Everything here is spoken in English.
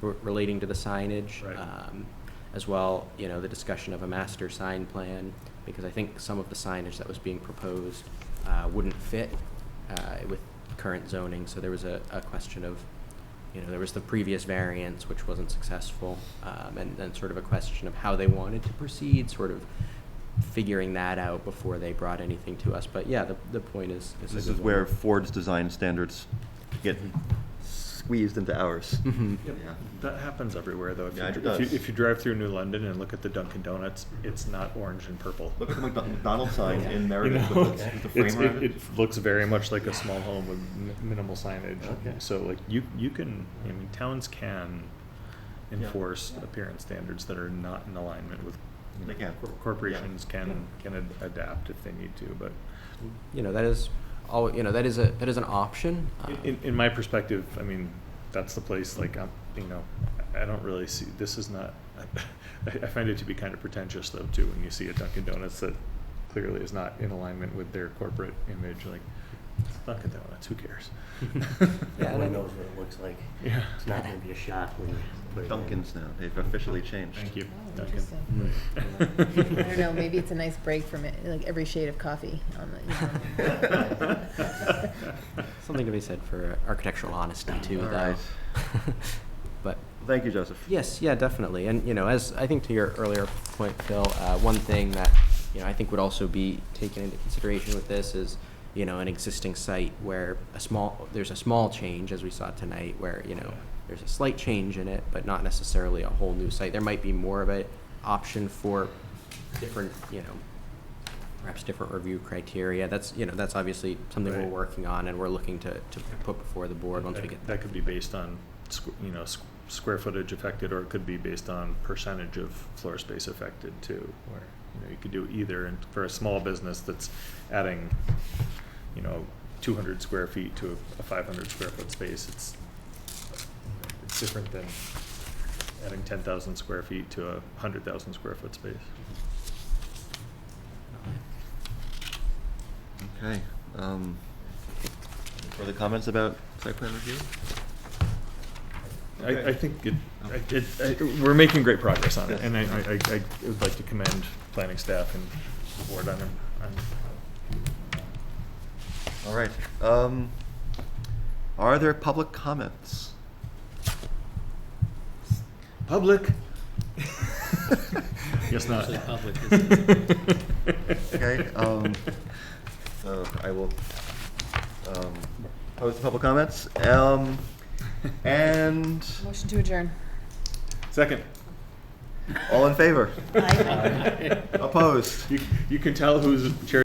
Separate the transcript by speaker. Speaker 1: re- relating to the signage.
Speaker 2: Right.
Speaker 1: um, As well, you know, the discussion of a master sign plan, because I think some of the signage that was being proposed uh, wouldn't fit uh, with current zoning. So there was a, a question of, you know, there was the previous variance, which wasn't successful, um, and then sort of a question of how they wanted to proceed, sort of figuring that out before they brought anything to us. But yeah, the, the point is. a
Speaker 3: This
Speaker 1: good
Speaker 3: is
Speaker 1: one.
Speaker 3: where Ford's design standards get
Speaker 2: Mm-hmm.
Speaker 3: squeezed into ours.
Speaker 1: Mhm.
Speaker 2: Yep.
Speaker 3: Yeah.
Speaker 2: That happens everywhere, though. If you,
Speaker 3: Yeah,
Speaker 2: if
Speaker 3: it
Speaker 2: you-
Speaker 3: does.
Speaker 2: If you drive through New London and look at the Dunkin' Donuts, it's not orange and purple.
Speaker 3: Look at the McDo- McDonald's sign
Speaker 2: You
Speaker 3: in Meredith
Speaker 2: know?
Speaker 3: with the- with the
Speaker 2: It's-
Speaker 3: frame
Speaker 2: it,
Speaker 3: around
Speaker 2: it
Speaker 3: it.
Speaker 2: looks very much like a small home with mi- minimal signage.
Speaker 3: Okay.
Speaker 2: So like you, you can, I mean, towns can
Speaker 3: Yeah.
Speaker 2: enforce appearance standards that are not in alignment with. you
Speaker 3: They
Speaker 2: know,
Speaker 3: can.
Speaker 2: cor- Corporations
Speaker 3: Yeah.
Speaker 2: can, can ad- adapt if they need to, but
Speaker 1: You know, that is, all, you know, that is a, that is an option. um,
Speaker 2: In, in my perspective, I mean, that's the place, like, I'm, you know, I I don't really see, this is not, I, I find it to be kind of pretentious though, too, when you see a Dunkin' Donuts that clearly is not in alignment with their corporate image, like, it's Dunkin' Donuts, who cares?
Speaker 1: Yeah, and I-
Speaker 4: Everyone knows what it looks like.
Speaker 2: Yeah.
Speaker 4: It's not gonna be a shock when you put it in.
Speaker 3: Dunkin's now, they've officially changed.
Speaker 2: Thank you,
Speaker 5: Oh,
Speaker 2: Dunkin'.
Speaker 5: interesting. I don't know, maybe it's a nice break from it, like every shade of coffee on the.
Speaker 1: Something to be said for architectural honesty too,
Speaker 3: All
Speaker 1: though.
Speaker 3: right.
Speaker 1: But,
Speaker 3: Thank you, Joseph.
Speaker 1: yes, yeah, definitely. And, you know, as, I think to your earlier point, Phil, uh, one thing that, you know, I think would also be taken into consideration with this is, you know, an existing site where a small, there's a small change, as we saw tonight, where, you know, there's a slight change in it, but not necessarily a whole new site. There might be more of an option for different, you know, perhaps different review criteria. That's, you know, that's obviously something we're
Speaker 2: Right.
Speaker 1: working on and we're looking to, to put before the board once we
Speaker 2: That-
Speaker 1: get
Speaker 2: That could be based on, squ- you know, squ- square footage affected, or it could be based on percentage of floor space affected too. Where, you know, you could do either, and for a small business that's adding, you know, two hundred square feet to a five hundred square foot space, it's, it's different than adding ten thousand square feet to a hundred thousand square foot space.
Speaker 3: Okay. um, Further comments about site plan review?
Speaker 2: I, I
Speaker 3: Okay.
Speaker 2: think it, I- it, I- we're making great progress on it,
Speaker 3: Yes.
Speaker 2: and I, I, I- I would like to commend planning staff and the board on, on
Speaker 3: All right. um, Are there public comments?
Speaker 2: public. Yes, not.
Speaker 6: Actually, public
Speaker 3: Okay, um, so I will um, post the public comments. Um, And
Speaker 5: Motion to adjourn.
Speaker 2: Second.
Speaker 3: all in favor?
Speaker 5: Aye.
Speaker 3: Opposed?
Speaker 2: You, you can tell who's chair